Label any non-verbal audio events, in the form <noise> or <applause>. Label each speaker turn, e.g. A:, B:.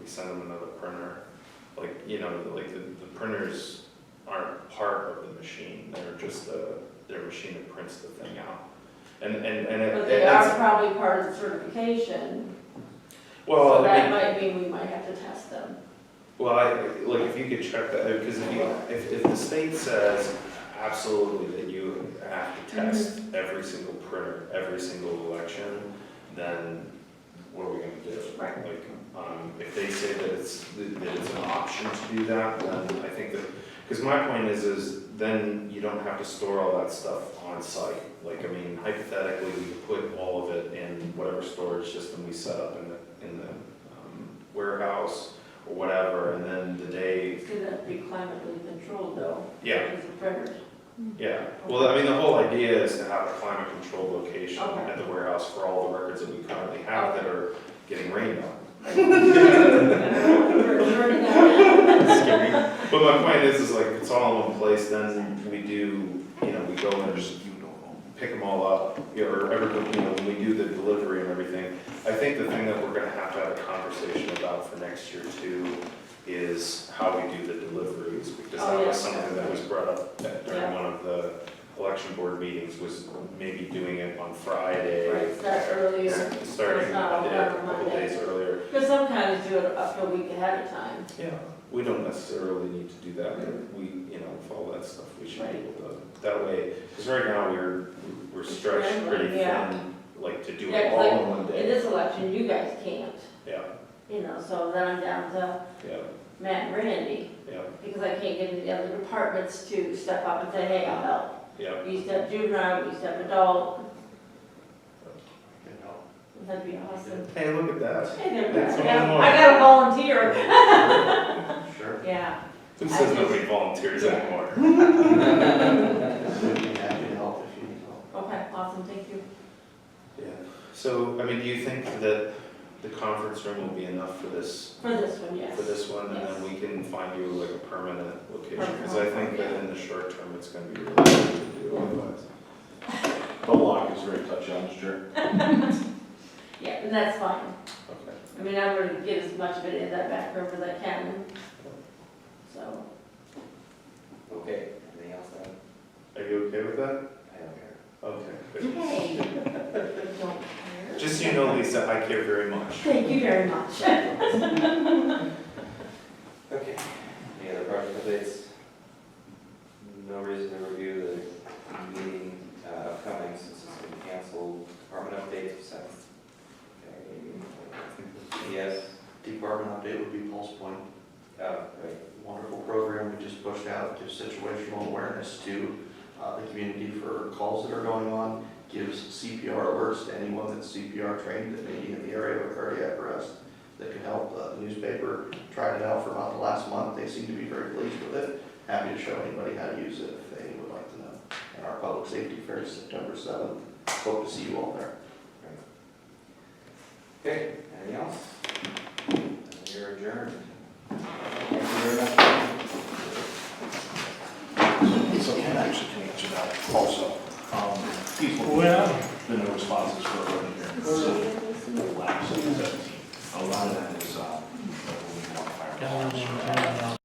A: we sent them another printer. Like, you know, like the, the printers aren't part of the machine, they're just the, their machine that prints the thing out. And, and, and it-
B: But
A: it
B: they
A: ends-
B: are probably part of certification, so
A: well, I
B: that
A: mean,
B: might mean we might have to test them.
A: well, I, like, if you could check that, because if you, if, if the state says absolutely that you have
B: Mm-hmm.
A: to test every single printer, every single election, then what are we gonna do?
B: Right.
A: Like, um, if they say that it's, that it's an option to do that, then I think that, because my point is, is then you don't have to store all that stuff on site. Like, I mean, hypothetically, we could put all of it in whatever storage system we set up in the, in the um, warehouse or whatever, and then the day,
B: It's gonna be climatically controlled though.
A: yeah,
B: Because of printers.
A: yeah. Well, I mean, the whole idea is to have a climate controlled location
B: Okay.
A: at the warehouse for all the records that we currently have that are getting rained on.
B: <laughs> We're learning that now.
A: Scary. But my point is, is like, it's all in one place, then we do, you know, we go and just pick them all up, you know, or every, you know, when we do the delivery and everything. I think the thing that we're gonna have to have a conversation about for next year too is how we do the deliveries, because
B: Oh,
A: that was
B: yes,
A: something that was brought up at- during
B: Yeah.
A: one of the election board meetings, was maybe doing it on Friday.
B: Right, start earlier.
A: Starting a
B: It's not all
A: day-
B: done
A: a
B: on
A: couple
B: Monday.
A: days earlier.
B: Because some counties do it up to a week ahead of time.
A: Yeah, we don't necessarily need to do that, but we, you know, with all that stuff, we should be able to, that way, because right now, we're, we're stretched pretty
B: Yeah.
A: thin, like, to do
B: Yeah,
A: it
B: 'cause
A: all
B: like,
A: in one
B: In
A: day.
B: this election, you guys can't,
A: Yeah,
B: you know, so then I'm down to
A: yeah,
B: Matt and Randy,
A: yeah,
B: because I can't get any of the other departments to step up and say, hey, I'll help.
A: yeah,
B: We used to have juvenile, we used to have adult,
C: <laughs> You
B: that'd be awesome.
A: hey, look at that.
B: Hey, there,
A: That's
B: I
A: one more.
B: got, I got a
D: <laughs>
B: volunteer,
C: know, Sure.
B: yeah.
A: Who
B: I
A: says
B: just-
A: nobody volunteers
B: Yeah.
A: anymore?
C: We'd be happy to help if you need help.
B: Okay, awesome, thank you.
A: Yeah, so, I mean, do you think that the conference room will be enough for this,
B: For this one, yes.
A: for this one? And then
B: Yes.
A: we can find you like a permanent location, because I
B: Permanent,
A: think that
B: yeah.
A: in the short term, it's gonna be really hard to do otherwise.
D: The lock is very touchy on this jerk.
B: Yeah, and that's fine.
A: Okay.
B: I mean, I'm gonna get as much of it in that back room as I can, so.
C: Okay, anything else then?
A: Are you okay with that?
C: I don't care.
A: Okay. good.
B: Hey, <laughs> don't care.
A: Just so you know, Lisa, I care very much.
B: Thank you very much.
C: Okay, any other project updates? No reason to review the meeting uh, upcoming since it's been canceled. Department updates, seven. Yes,
D: Department update would be Pulse Point,
C: oh, right.
D: wonderful program we just pushed out, gives situational awareness to uh, the community for calls that are going on, gives CPR alerts to anyone that's CPR trained that may be in the area of a cardiac arrest that could help. Uh, The newspaper tried it out for about the last month, they seem to be very pleased with it, happy to show anybody how to use it if they would like to know. And our public safety fair is September 7th, hope to see you all there.
C: Okay, anything else? You're adjourned. Thank you very much.
E: So can I actually can answer that also. Um, People who have been the responses for over here. So, lapse in 17. A lot of that is, uh, we want fire.